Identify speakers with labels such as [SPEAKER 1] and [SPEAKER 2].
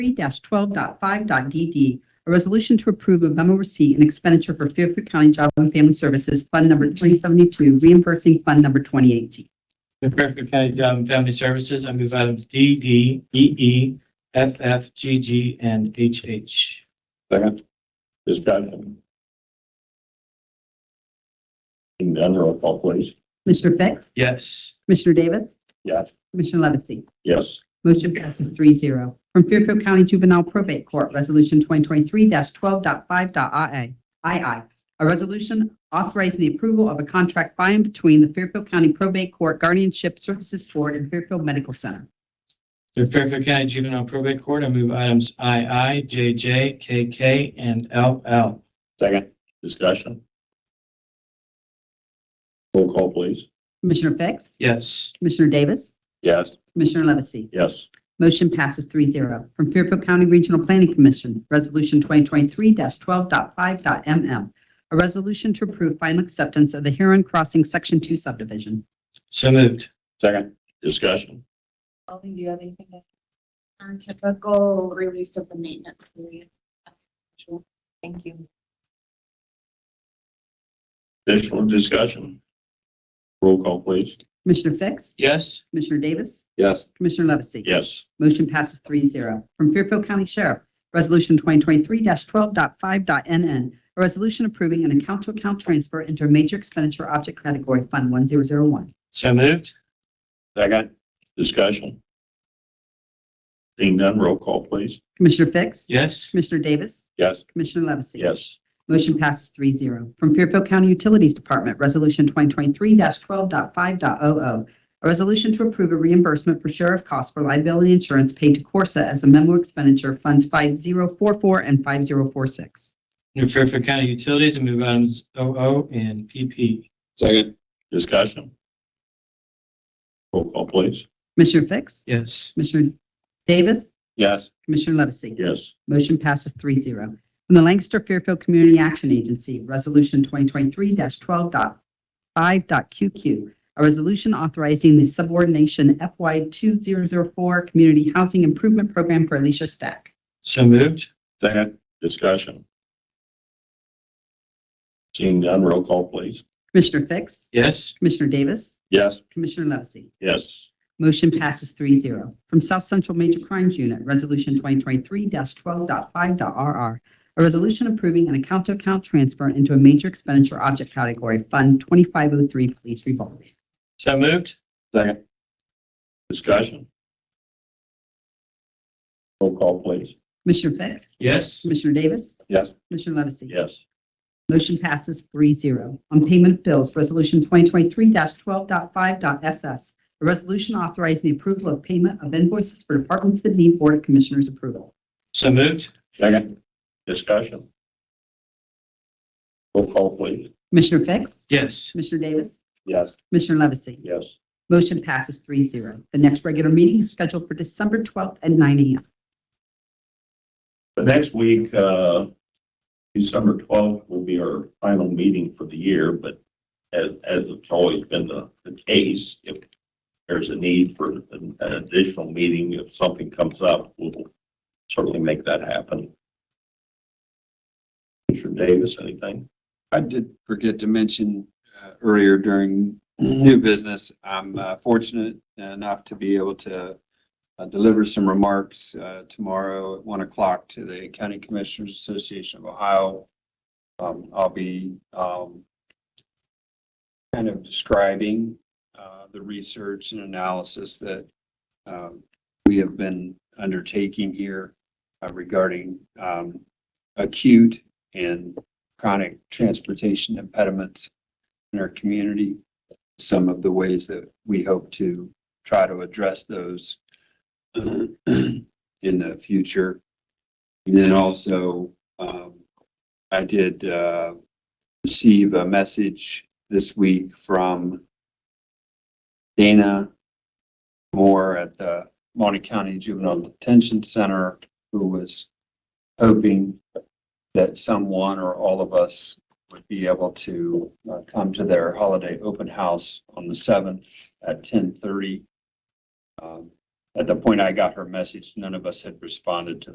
[SPEAKER 1] 3-12.5.d.d. A resolution to approve a memo receipt and expenditure for Fairfield County Job and Family Services Fund Number 2072, reimbursing Fund Number 2018.
[SPEAKER 2] The Fairfield County Job and um, Family Services, I move items D, D, E, E, F, F, G, G, and H, H.
[SPEAKER 3] Second. Discussion. Seeing none, roll call please.
[SPEAKER 1] Commissioner Fix?
[SPEAKER 2] Yes.
[SPEAKER 1] Commissioner Davis?
[SPEAKER 3] Yes.
[SPEAKER 1] Commissioner Levesey?
[SPEAKER 3] Yes.
[SPEAKER 1] Motion passes three zero. From Fairfield County Juvenile Probate Court, Resolution 2023-12.5.i.i. II, a resolution authorizing the approval of a contract by and between the Fairfield County Probate Court Guardianship Services Board and Fairfield Medical Center.
[SPEAKER 2] The Fairfield County Juvenile Probate Court, I move items I, I, J, J, K, K, and L, L.
[SPEAKER 3] Second. Discussion. Roll call please.
[SPEAKER 1] Commissioner Fix?
[SPEAKER 2] Yes.
[SPEAKER 1] Commissioner Davis?
[SPEAKER 3] Yes.
[SPEAKER 1] Commissioner Levesey?
[SPEAKER 3] Yes.
[SPEAKER 1] Motion passes three zero. From Fairfield County Regional Planning Commission, Resolution 2023-12.5.m.m. A resolution to approve final acceptance of the Heron Crossing Section 2 subdivision.
[SPEAKER 2] So moved.
[SPEAKER 3] Second. Discussion.
[SPEAKER 4] Colleen, do you have anything? to- Our typical release of the maintenance period. Sure. Thank you.
[SPEAKER 3] Additional discussion. Roll call please.
[SPEAKER 1] Commissioner Fix?
[SPEAKER 2] Yes.
[SPEAKER 1] Commissioner Davis?
[SPEAKER 3] Yes.
[SPEAKER 1] Commissioner Levesey?
[SPEAKER 3] Yes.
[SPEAKER 1] Motion passes three zero. From Fairfield County Sheriff, Resolution 2023-12.5.nn. A resolution approving an account-to-account transfer into a major expenditure object category, Fund 1001.
[SPEAKER 2] So moved.
[SPEAKER 3] Second. Discussion. Seeing none, roll call please.
[SPEAKER 1] Commissioner Fix?
[SPEAKER 2] Yes.
[SPEAKER 1] Commissioner Davis?
[SPEAKER 3] Yes.
[SPEAKER 1] Commissioner Levesey?
[SPEAKER 3] Yes.
[SPEAKER 1] Motion passes three zero. From Fairfield County Utilities Department, Resolution 2023-12.5.o.o. A resolution to approve a reimbursement for sheriff costs for liability insurance paid to Corsa as a memo expenditure funds 5044 and 5046.
[SPEAKER 2] New Fairfield County Utilities, I move items O, O, and P, P.
[SPEAKER 3] Second. Discussion. Roll call please.
[SPEAKER 1] Commissioner Fix?
[SPEAKER 2] Yes.
[SPEAKER 1] Commissioner Davis?
[SPEAKER 3] Yes.
[SPEAKER 1] Commissioner Levesey?
[SPEAKER 3] Yes.
[SPEAKER 1] Motion passes three zero. From the Lancaster Fairfield Community Action Agency, Resolution 2023-12.5.QQ, a resolution authorizing the subordination FY 2004 Community Housing Improvement Program for Alicia Stack.
[SPEAKER 2] So moved.
[SPEAKER 3] Second. Discussion. Seeing none, roll call please.
[SPEAKER 1] Commissioner Fix?
[SPEAKER 2] Yes.
[SPEAKER 1] Commissioner Davis?
[SPEAKER 3] Yes.
[SPEAKER 1] Commissioner Levesey?
[SPEAKER 3] Yes.
[SPEAKER 1] Motion passes three zero. From South Central Major Crimes Unit, Resolution 2023-12.5.RR, a resolution approving an account-to-account transfer into a major expenditure object category, Fund 2503 Police Revolving.
[SPEAKER 2] So moved.
[SPEAKER 3] Second. Discussion. Roll call please.
[SPEAKER 1] Commissioner Fix?
[SPEAKER 2] Yes.
[SPEAKER 1] Commissioner Davis?
[SPEAKER 3] Yes.
[SPEAKER 1] Commissioner Levesey?
[SPEAKER 3] Yes.
[SPEAKER 1] Motion passes three zero. On payment of bills, Resolution 2023-12.5.SS, a resolution authorizing the approval of payment of invoices for departments that need Board of Commissioners approval.
[SPEAKER 2] So moved.
[SPEAKER 3] Second. Discussion. Roll call please.
[SPEAKER 1] Commissioner Fix?
[SPEAKER 2] Yes.
[SPEAKER 1] Commissioner Davis?
[SPEAKER 3] Yes.
[SPEAKER 1] Commissioner Levesey?
[SPEAKER 3] Yes.
[SPEAKER 1] Motion passes three zero. The next regular meeting is scheduled for December 12th at 9 a.m.
[SPEAKER 3] The next week, uh, December twelfth will be our final meeting for the year, but as, as it's always been the, the case, if there's a need for an an additional meeting, if something comes up, we'll certainly make that happen. Commissioner Davis, anything?
[SPEAKER 5] I did forget to mention uh, earlier during new business, I'm uh, fortunate enough to be able to uh, deliver some remarks uh, tomorrow at one o'clock to the County Commissioners Association of Ohio. Um, I'll be um, kind of describing uh, the research and analysis that um, we have been undertaking here uh, regarding um, acute and chronic transportation impediments in our community. Some of the ways that we hope to try to address those uh, in the future. And then also, um, I did, uh, receive a message this week from Dana Moore at the Monty County Juvenile Detention Center, who was hoping that someone or all of us would be able to uh, come to their holiday open house on the seventh at Um, ten thirty. At the point I got her message, none of us had responded to